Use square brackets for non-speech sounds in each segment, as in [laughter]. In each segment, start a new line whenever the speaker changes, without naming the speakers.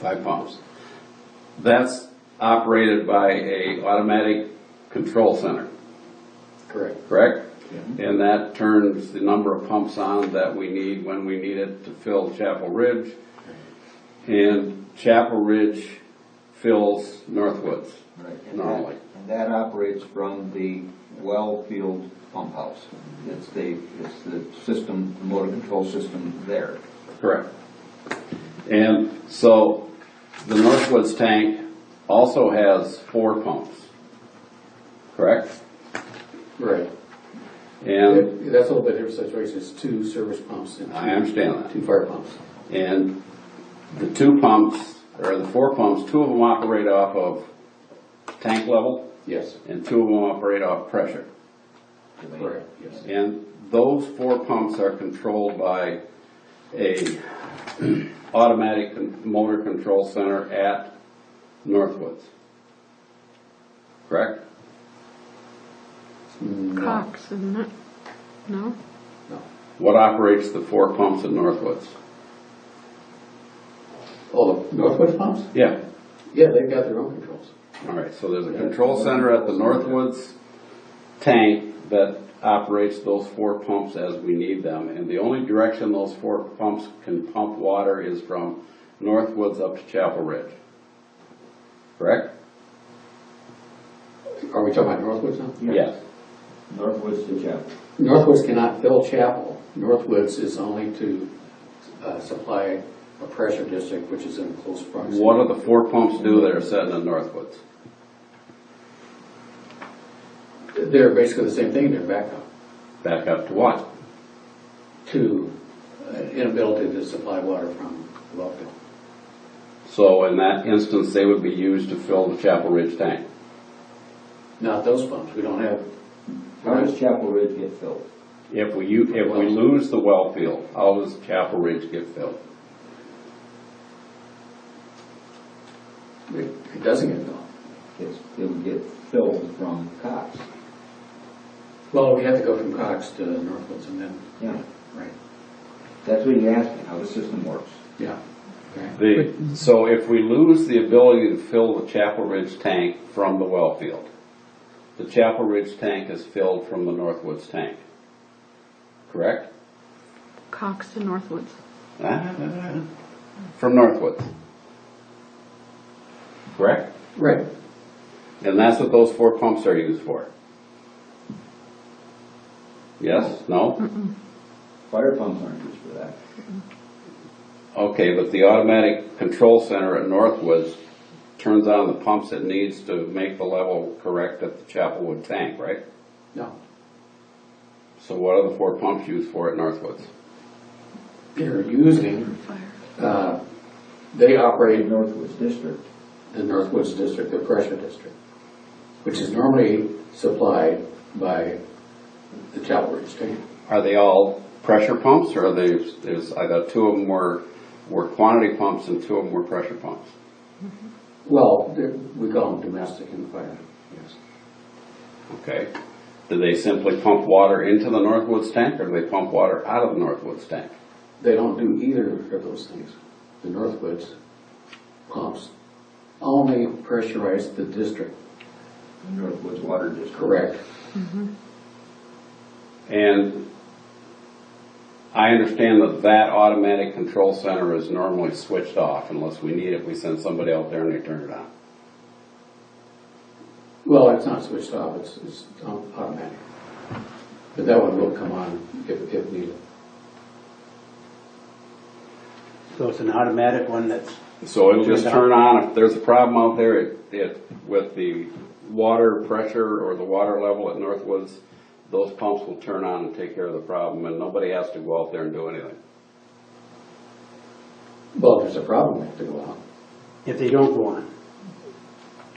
five pumps. That's operated by a automatic control center,
Correct.
correct? And that turns the number of pumps on that we need when we need it to fill Chapel Ridge. And Chapel Ridge fills Northwoods
Right.
normally.
And that operates from the well field pump house. It's the, it's the system, the motor control system there.
Correct. And so the Northwoods tank also has four pumps, correct?
Right.
And
That- That's a little bit different situation, it's two service pumps and
I
two,
understand that.
two fire pumps.
And the two pumps, or the four pumps, two of them operate off of tank level
Yes.
and two of them operate off pressure.
Correct, yes.
And those four pumps are controlled by a [clears throat] automatic con- motor control center at Northwoods. Correct?
Cox, isn't it? No?
No.
What operates the four pumps at Northwoods?
Oh, the Northwoods pumps?
Yeah,
Yeah, they've got their own controls.
all right, so there's a control center at the Northwoods tank that operates those four pumps as we need them. And the only direction those four pumps can pump water is from Northwoods up to Chapel Ridge. Correct?
Are we talking about Northwoods now?
Yes.
Northwoods to Chapel.
Northwoods cannot fill Chapel. Northwoods is only to uh, supply a pressure district, which is in close proximity.
What do the four pumps do that are set in Northwoods?
They're basically the same thing, they're backup
Back up to what?
to uh, inability to supply water from the well field.
So in that instance, they would be used to fill the Chapel Ridge tank.
Not those pumps, we don't have,
How does Chapel Ridge get filled?
If we, u- if we lose the well field, how does Chapel Ridge get filled?
it it doesn't get filled.
It's, it would get filled from Cox.
Well, we have to go from Cox to Northwoods and then,
Yeah.
right,
That's what you asked me, how the system works.
yeah. Okay.
The, so if we lose the ability to fill the Chapel Ridge tank from the well field, the Chapel Ridge tank is filled from the Northwoods tank. Correct?
Cox to Northwoods.
From Northwoods. Correct?
Right,
And that's what those four pumps are used for. Yes, no?
Fire pumps aren't used for that.
Okay, but the automatic control center at Northwoods turns on the pumps it needs to make the level correct at the Chapelwood tank, right?
no,
So what are the four pumps used for at Northwoods?
they're using, uh, they
The
operate
Northwoods District.
the Northwoods District, the pressure district, which is normally supplied by the Chapel Ridge tank.
Are they all pressure pumps or are they, there's, I thought two of them were, were quantity pumps and two of them were pressure pumps?
Well, they're- we call them domestic and fire, yes.
Okay. Do they simply pump water into the Northwoods tank or do they pump water out of the Northwoods tank?
They don't do either of those things. The Northwoods pumps only pressurize the district.
the Northwoods Water District.
And I understand that that automatic control center is normally switched off unless we need it, we send somebody out there and they turn it on.
Well, it's not switched off, it's, it's automatic. But that one will come on if, if needed.
So it's an automatic one that's,
So it'll just
Turned
turn on, if there's a problem out there, it, it, with the water pressure or the water level at Northwoods, those pumps will turn on and take care of the problem, and nobody has to go out there and do anything.
Well, if there's a problem, they have to go out.
if they don't go on,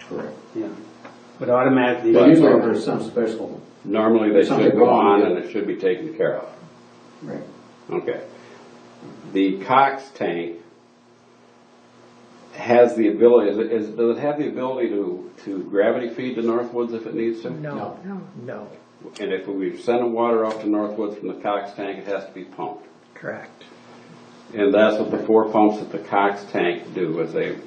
Correct.
yeah. But automatically.
But usually if there's some special.
Normally, they
Something
should go on
wrong, yeah.
and it should be taken care of.
Right.
Okay. The Cox tank has the ability, is, is- does it have the ability to, to gravity feed to Northwoods if it needs to?
No.
No.
No,
And if we send the water off to Northwoods from the Cox tank, it has to be pumped.
correct.
And that's what the four pumps at the Cox tank do, is they